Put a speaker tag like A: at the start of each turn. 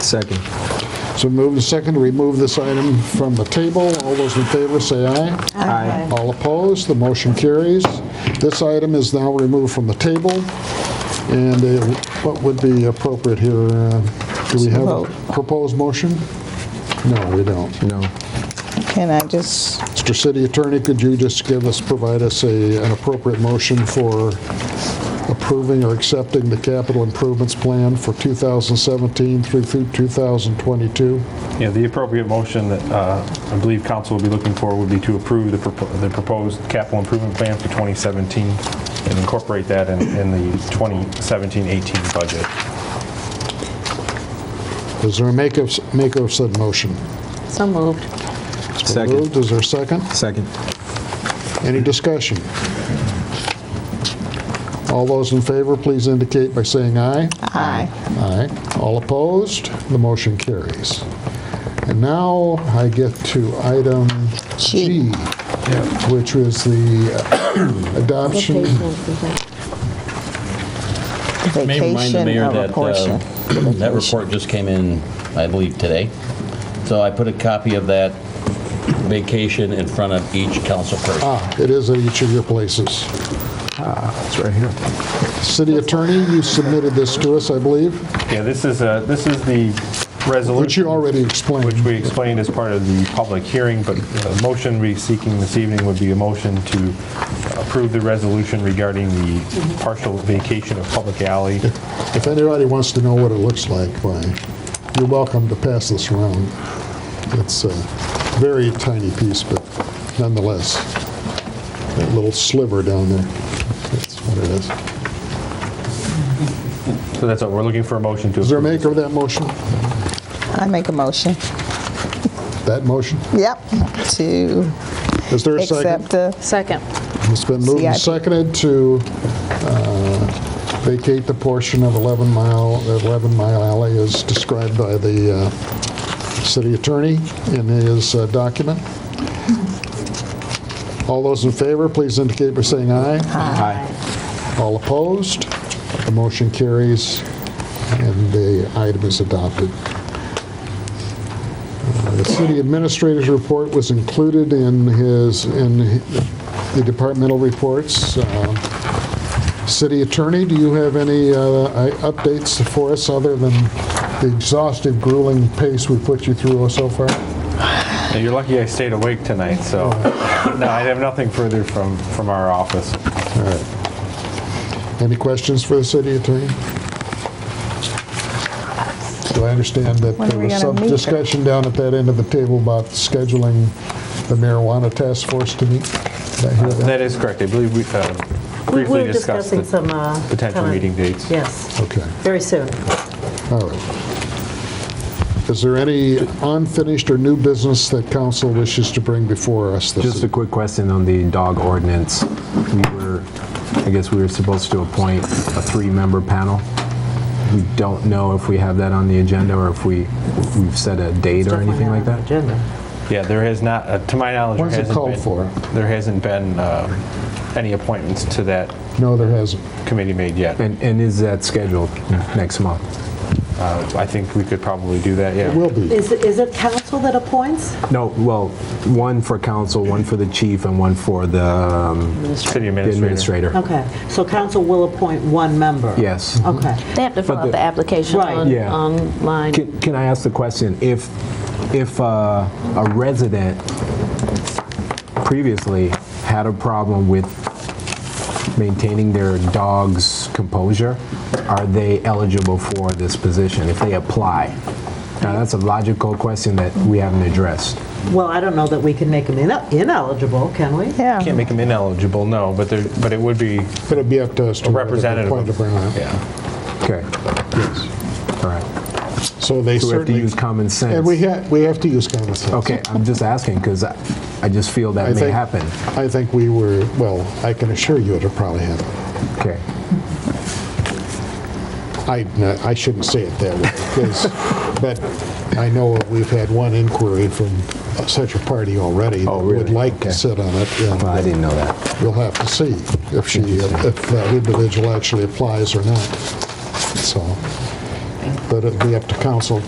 A: Second.
B: So move to second to remove this item from the table. All those in favor say aye.
A: Aye.
B: All opposed, the motion carries. This item is now removed from the table, and uh, what would be appropriate here? uh, Do we have a
C: Vote.
B: proposed motion? No, we don't.
A: No.
C: Can I just,
B: Mr. City Attorney, could you just give us, provide us a, an appropriate motion for approving or accepting the capital improvements plan for 2017 through through 2022?
D: Yeah, the appropriate motion that uh, I believe council will be looking for would be to approve the propo- the proposed capital improvement plan for 2017 and incorporate that in in the 2017-18 budget.
B: Is there a make of, make of said motion?
E: So moved.
B: It's been
A: Second.
B: moved. Is there a second?
A: Second.
B: Any discussion? All those in favor, please indicate by saying aye.
C: aye.
B: Aye. All opposed? The motion carries. And now I get to item G,
C: G.
B: which is the adoption.
F: May remind
C: Vacation
F: the mayor
C: of a
F: that
C: portion.
F: uh, that report just came in, I believe, today. So I put a copy of that vacation in front of each council person.
B: Ah, it is at each of your places.
A: It's right here.
B: City Attorney, you submitted this to us, I believe,
D: Yeah, this is, uh, this is the
B: which you
D: resolution,
B: already
D: which
B: explained.
D: we explained as part of the public hearing, but the motion we're seeking this evening would be a motion to approve the resolution regarding the partial vacation of public alley.
B: If anybody wants to know what it looks like, why, you're welcome to pass this around. It's a very tiny piece, but nonetheless, that little sliver down there, that's what it is.
D: So that's what we're looking for, a motion to
B: Is there a
D: approve.
B: maker of that motion?
C: I make a motion.
B: That motion?
C: Yep, to
B: Is there a second?
C: accept the,
E: Second.
B: It's been moved and
C: CIP.
B: seconded to uh, vacate the portion of 11 Mile, 11 Mile Alley as described by the uh, city attorney in his uh, document. All those in favor, please indicate by saying aye.
A: Aye.
B: All opposed? The motion carries, and the item is adopted. Uh, The city administrator's report was included in his, in the departmental reports. Uh, City attorney, do you have any uh, i- updates for us other than the exhaustive grueling pace we put you through so far?
D: Now, You're lucky I stayed awake tonight, so, no, I have nothing further from, from our office.
B: Any questions for the city attorney? Do I understand that
C: When are
B: there
C: we
B: was some
C: gonna meet?
B: discussion down at that end of the table about scheduling the marijuana task force to meet? Did I hear that?
D: That is correct, I believe we uh,
E: We
D: briefly
E: were
D: discussed
E: discussing some.
D: the
E: uh,
D: potential
E: time.
D: meeting dates.
E: Yes,
B: Okay,
E: very soon.
B: all right. Is there any unfinished or new business that council wishes to bring before us this
A: Just a
B: evening?
A: quick question on the dog ordinance. We were, I guess we were supposed to appoint a three-member panel. We don't know if we have that on the agenda or if we, we've set a date or anything like that.
E: Agenda.
D: Yeah, there has not, uh, to my knowledge, there
B: When's it
D: hasn't been.
B: called for?
D: There hasn't been um, any appointments to that
B: No, there hasn't.
D: committee made yet.
A: And, and is that scheduled next month?
D: Uh, I think we could probably do that,
B: It
D: yeah.
B: will be.
E: uh, Is, it- is it council that appoints?
A: No, well, one for council, one for the chief, and one for the um,
D: City
A: the
D: administrator.
A: administrator.
E: Okay, so council will appoint one member?
A: Yes.
E: Okay.
G: They have to fill out the application
E: Right.
G: on-
A: Yeah.
G: online.
A: Can, can I ask the question? If, if uh, a resident previously had a problem with maintaining their dog's composure, are they eligible for this position if they apply? Now, that's a logical question that we haven't addressed.
E: Well, I don't know that we can make them ine- ineligible, can we?
D: Can't
C: yeah,
D: make them ineligible, no, but there, but it would be,
B: But it'd be up to us to.
D: A
B: whether to
D: representative
B: appoint
D: of-
B: them or not.
D: yeah.
A: Okay. All right.
B: So they
A: So we have to
B: certainly.
A: use common sense.
B: And we have, we have to use common sense.
A: Okay, I'm just asking because I, I just feel that
B: I
A: may
B: think-
A: happen.
B: I think we were, well, I can assure you it'll probably happen.
A: Okay.
B: I, no, I shouldn't say it that way, because, but I know we've had one inquiry from such a party already.
A: Oh,
B: that Would
A: really?
B: like
A: Okay.
B: to sit on it,
A: Well, I
B: and
A: didn't know that.
B: we'll have to see if she, if that individual actually applies or not, so. But it'll be up to council